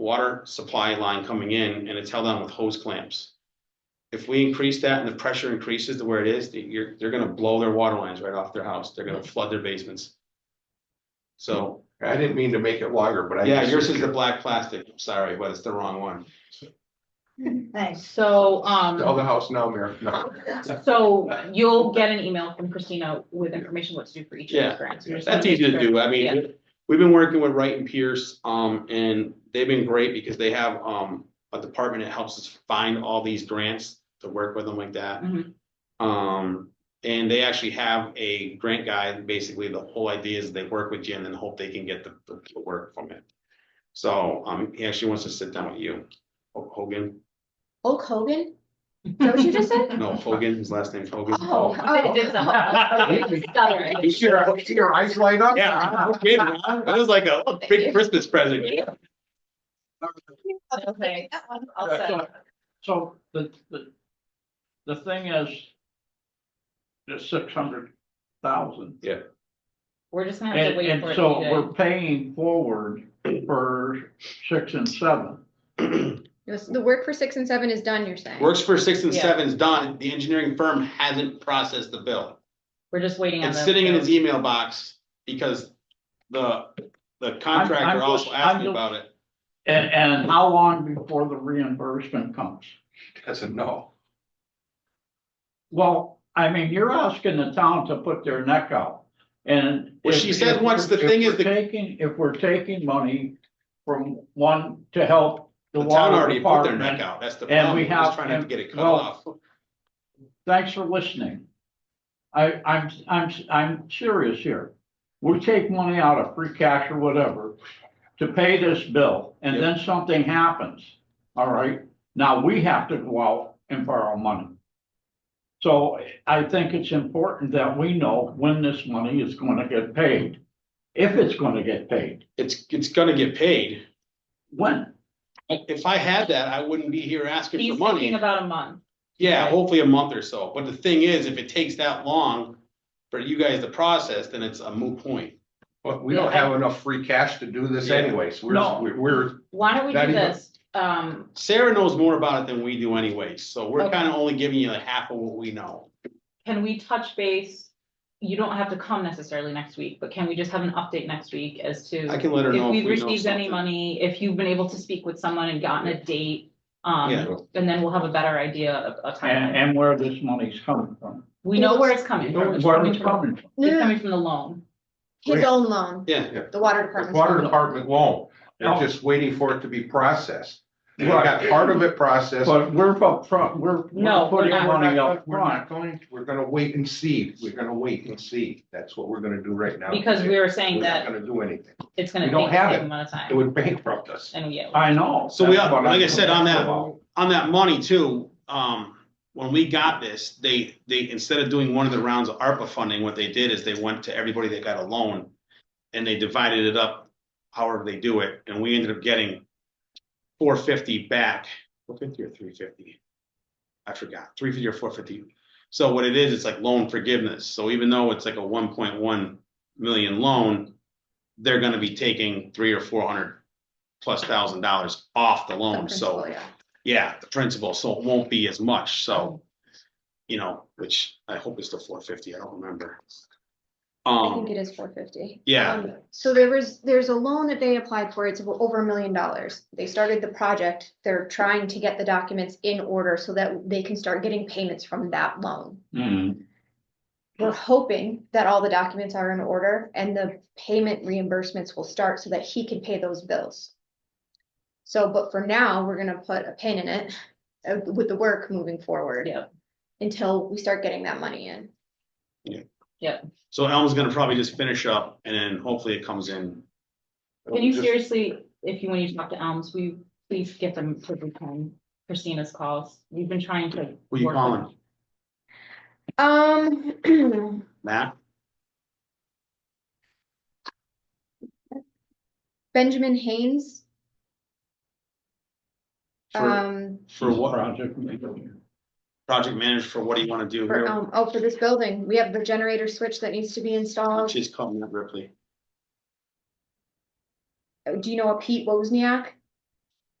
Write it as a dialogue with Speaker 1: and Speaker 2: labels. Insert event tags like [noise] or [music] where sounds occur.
Speaker 1: water supply line coming in and it's held on with hose clamps. If we increase that and the pressure increases to where it is, you're, they're gonna blow their water lines right off their house. They're gonna flood their basements. So,
Speaker 2: I didn't mean to make it longer, but I.
Speaker 1: yeah,
Speaker 2: just-
Speaker 1: yours is the black plastic. I'm sorry, but it's the wrong one.
Speaker 3: Thanks.
Speaker 4: So,
Speaker 2: Sell
Speaker 1: Oh,
Speaker 4: um,
Speaker 2: the house now, Mayor. No.
Speaker 4: so you'll get an email from Christina with information what to do for each of
Speaker 1: Yeah,
Speaker 4: these grants. We just wanna
Speaker 1: That's easy to
Speaker 4: make
Speaker 1: do. I
Speaker 4: Yeah.
Speaker 1: mean, we've been working with Wright and Pierce, um, and they've been great because they have, um, a department that helps us find all these grants to work with them like that.
Speaker 4: Mhm.
Speaker 1: Um, and they actually have a grant guide. Basically, the whole idea is they work with you and then hope they can get the, the the work from it. So, um, he actually wants to sit down with you. Ho- Hogan,
Speaker 3: Hulk Hogan? Is that what you just said?
Speaker 1: no, Hogan, his last name's Hogan.
Speaker 4: sure.
Speaker 3: Oh,
Speaker 4: [laughs] It did
Speaker 3: oh.
Speaker 4: something. Stuttering.
Speaker 2: You see Your, see your eyes light up?
Speaker 1: Yeah, Hogan, that was like a a big Christmas present.
Speaker 2: Ah.
Speaker 4: Okay. I'll
Speaker 2: Yeah,
Speaker 4: send.
Speaker 5: So the, the, the thing is, the six hundred thousand.
Speaker 4: We're just gonna have
Speaker 3: [laughs]
Speaker 5: And,
Speaker 4: to wait
Speaker 5: and
Speaker 4: for it
Speaker 5: so
Speaker 4: to
Speaker 5: we're paying forward for six and seven.
Speaker 3: Yes, The work for six and seven is done, you're saying?
Speaker 1: Works for six and
Speaker 4: Yeah.
Speaker 1: seven's done, the engineering firm hasn't processed the bill.
Speaker 4: we're just waiting on
Speaker 1: It's
Speaker 4: the.
Speaker 1: sitting in his email box because the, the contractor
Speaker 5: I'm
Speaker 1: also
Speaker 5: just- I'm
Speaker 1: asked me
Speaker 5: just-
Speaker 1: about it.
Speaker 5: And, and how long before the reimbursement comes?
Speaker 2: That's a no.
Speaker 5: Well, I mean, you're asking the town to put their neck out and.
Speaker 1: Well,
Speaker 5: if-
Speaker 1: she said
Speaker 5: if
Speaker 1: once
Speaker 5: we're-
Speaker 1: the
Speaker 5: if
Speaker 1: thing is
Speaker 5: we're
Speaker 1: the-
Speaker 5: Taking, if we're taking money from one to help the
Speaker 1: The town
Speaker 5: water
Speaker 1: already put their neck
Speaker 5: department.
Speaker 1: out, that's the
Speaker 5: and
Speaker 1: problem,
Speaker 5: we
Speaker 1: we're just
Speaker 5: have-
Speaker 1: trying to
Speaker 5: and-
Speaker 1: get it cut
Speaker 5: well,
Speaker 1: off.
Speaker 5: Thanks for listening. I, I'm, I'm, I'm serious here. We take money out of free cash or whatever to pay this bill, and then something happens, all right? Now we have to go out and borrow money. So I think it's important that we know when this money is gonna get paid, if it's gonna get paid,
Speaker 1: It's, it's gonna get paid,
Speaker 5: when.
Speaker 1: if I had that, I wouldn't be here asking for
Speaker 4: He's
Speaker 1: money.
Speaker 4: thinking about a month.
Speaker 1: Yeah, hopefully a month or so, but the thing is, if it takes that long for you guys to process, then it's a moot point.
Speaker 2: But we don't have enough free cash to do this anyways.
Speaker 5: No.
Speaker 2: We're, we're- we're,
Speaker 4: Why don't we
Speaker 2: Not
Speaker 4: do
Speaker 2: even-
Speaker 4: this? Um,
Speaker 1: Sarah knows more about it than we do anyways, so we're
Speaker 4: Okay.
Speaker 1: kinda only giving you like half of what we know.
Speaker 4: can we touch base? You don't have to come necessarily next week, but can we just have an update next week as to?
Speaker 1: I can let her know.
Speaker 4: If we've
Speaker 1: we know
Speaker 4: received any
Speaker 1: something.
Speaker 4: money, if you've been able to speak with someone and gotten a date,
Speaker 1: Yeah.
Speaker 4: um, and then we'll have a better idea of, of
Speaker 5: And,
Speaker 4: time.
Speaker 5: and where this money's coming from.
Speaker 4: We know where it's coming from. It's
Speaker 5: Where
Speaker 4: coming
Speaker 5: it's
Speaker 4: from,
Speaker 5: coming from.
Speaker 4: it's coming from the loan.
Speaker 3: His own loan,
Speaker 1: Yeah,
Speaker 3: the water
Speaker 2: the
Speaker 3: department's.
Speaker 2: water
Speaker 3: loan.
Speaker 2: department won't. They're
Speaker 5: No.
Speaker 2: just waiting for it to be processed. We got part of it processed.
Speaker 5: But we're up front, we're,
Speaker 4: No, we're
Speaker 5: we're putting
Speaker 4: not.
Speaker 5: money up
Speaker 2: We're not
Speaker 5: front.
Speaker 2: going, we're gonna wait and see. We're gonna wait and see. That's what we're gonna do right now.
Speaker 4: Because we were saying
Speaker 2: We're not
Speaker 4: that
Speaker 2: gonna do anything.
Speaker 4: it's gonna
Speaker 2: we
Speaker 4: take
Speaker 2: don't
Speaker 4: the
Speaker 2: have
Speaker 4: same
Speaker 2: it.
Speaker 4: amount of
Speaker 2: It
Speaker 4: time.
Speaker 2: would bankrupt us.
Speaker 4: And yeah,
Speaker 5: I know.
Speaker 1: So we
Speaker 2: That's
Speaker 1: have-
Speaker 2: what I'm
Speaker 1: like I said, on that-
Speaker 2: about.
Speaker 1: on that money too, um, when we got this, they, they, instead of doing one of the rounds of ARPA funding, what they did is they went to everybody that got a loan. And they divided it up, however they do it, and we ended up getting four fifty back. Four fifty or three fifty? I forgot, three fifty or four fifty. So what it is, it's like loan forgiveness, so even though it's like a one point one million loan. They're gonna be taking three or four hundred plus thousand dollars off the
Speaker 3: The
Speaker 1: loan, so.
Speaker 3: principal, yeah.
Speaker 1: Yeah, the principal, so it won't be as much, so, you know, which I hope is the four fifty, I don't remember.
Speaker 3: I think
Speaker 1: Um,
Speaker 3: it is four fifty.
Speaker 1: yeah,
Speaker 3: Um, So there was, there's a loan that they applied for, it's over a million dollars. They started the project, they're trying to get the documents in order so that they can start getting payments from that loan.
Speaker 5: Mhm.
Speaker 3: We're hoping that all the documents are in order and the payment reimbursements will start so that he can pay those bills. So, but for now, we're gonna put a pin in it uh, with the work moving forward.
Speaker 4: Yeah.
Speaker 3: Until we start getting that money in.
Speaker 1: so Elm's gonna probably just finish up and then hopefully it comes in.
Speaker 4: can you
Speaker 2: Just-
Speaker 4: seriously, if you, when you talk to Elms, we, please get them to return Christina's calls. We've been trying to.
Speaker 1: Who you
Speaker 4: work with-
Speaker 1: calling?
Speaker 3: Um, [clears throat]
Speaker 1: Matt?
Speaker 3: Benjamin Haynes,
Speaker 1: For,
Speaker 3: um,
Speaker 1: for what,
Speaker 5: Project.
Speaker 1: project manager for what do you wanna do
Speaker 3: for,
Speaker 1: here?
Speaker 3: um, oh, for this building, we have the generator switch that needs to be installed.
Speaker 1: She's calling Matt Ripley.
Speaker 3: Do you know a Pete Wozniak?